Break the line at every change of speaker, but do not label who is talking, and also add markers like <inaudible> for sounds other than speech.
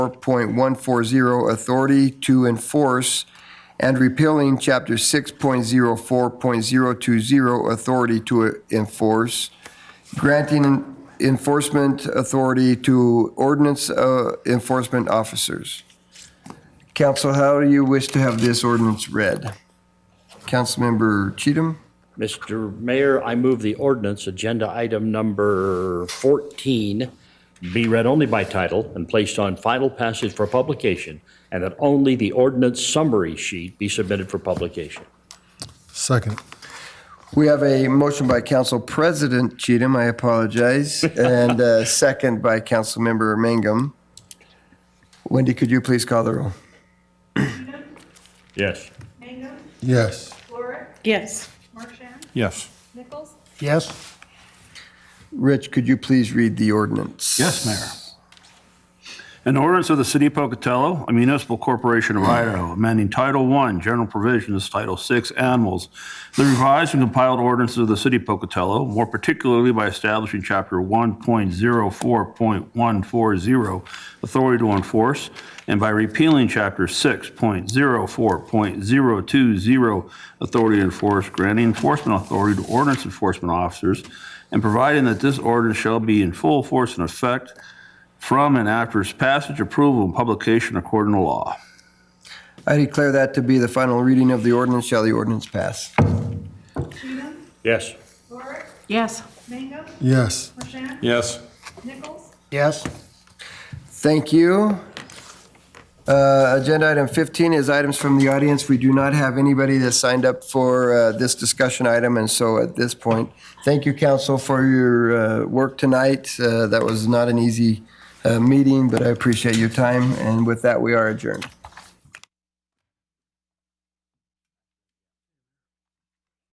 4.140 authority to enforce and repealing Chapter 6.04.020 authority to enforce, granting enforcement authority to ordinance uh, enforcement officers. Council, how do you wish to have this ordinance read? Councilmember Cheatham?
Mr. Mayor, I move the ordinance, agenda item number 14, be read only by title and placed on final passage for publication, and that only the ordinance summary sheet be submitted for publication.
Second.
We have a motion by Council President Cheatham, I
<laughs>
apologize, and a second by Councilmember Mangum. Wendy, could you please call the roll?
Yes.
Mangum,
Yes.
Lorick,
Yes.
Marshan,
Yes.
Nichols,
Yes.
Rich, could you please read the ordinance?
Yes, Mayor. An ordinance of the City of Pocatello, a municipal corporation of Idaho, amending Title I, General Provisions, Title VI, Animals, the revised and compiled ordinances of the City of Pocatello, more particularly by establishing Chapter 1.04.140, Authority to Enforce, and by repealing Chapter 6.04.020, Authority to Enforce, granting enforcement authority to ordinance enforcement officers, and providing that this ordinance shall be in full force and effect from and after its passage, approval, and publication according to law.
I declare that to be the final reading of the ordinance. Shall the ordinance pass?
Cheatham,
Yes.
Lorick,
Yes.
Mangum,
Yes.
Marshan,
Yes.
Nichols,
Yes.
Thank you. Uh, Agenda item 15 is items from the audience. We do not have anybody that signed up for uh, this discussion item, and so at this point, thank you, council, for your uh, work tonight. Uh, That was not an easy uh, meeting, but I appreciate your time, and with that, we are adjourned.